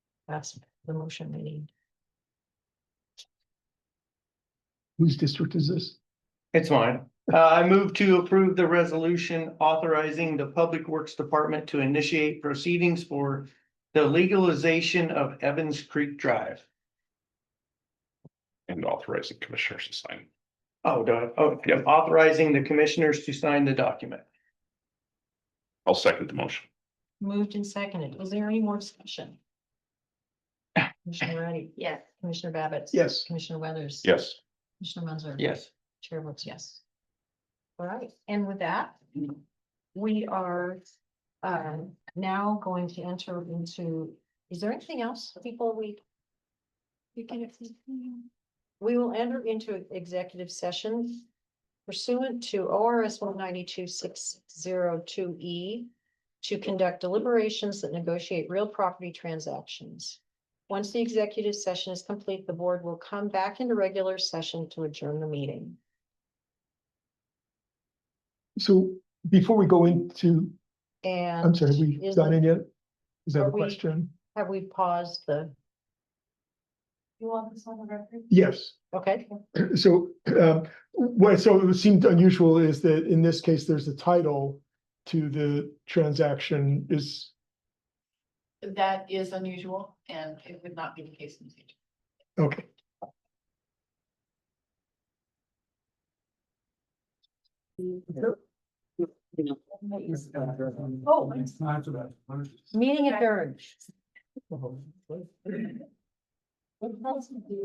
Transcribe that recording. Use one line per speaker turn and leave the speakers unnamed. pass the motion we need.
Whose district is this?
It's mine. Uh, I move to approve the resolution authorizing the Public Works Department to initiate proceedings for the legalization of Evans Creek Drive.
and authorizing commissioners to sign.
Oh, do I, oh, yeah, authorizing the commissioners to sign the document.
I'll second the motion.
Moved and seconded. Was there any more discussion? Commissioner Ready? Yes. Commissioner Babbitt?
Yes.
Commissioner Weathers?
Yes,
Commissioner Munzer?
Yes.
Chair votes yes. All right, and with that, we are um now going to enter into, is there anything else before we? You can. We will enter into executive session pursuant to ORS one ninety-two six zero two E to conduct deliberations that negotiate real property transactions. Once the executive session is complete, the board will come back into regular session to adjourn the meeting.
So before we go into,
And.
I'm sorry, we
is
done
the-
it yet? Is that
Are
a
we-
question?
Have we paused the? You want this on the record?
Yes.
Okay,
So um what so seemed unusual is that in this case, there's a title to the transaction is,
That is unusual and it would not be the case in the future.
okay.
Oh,
It's not to that.
meeting adjourned.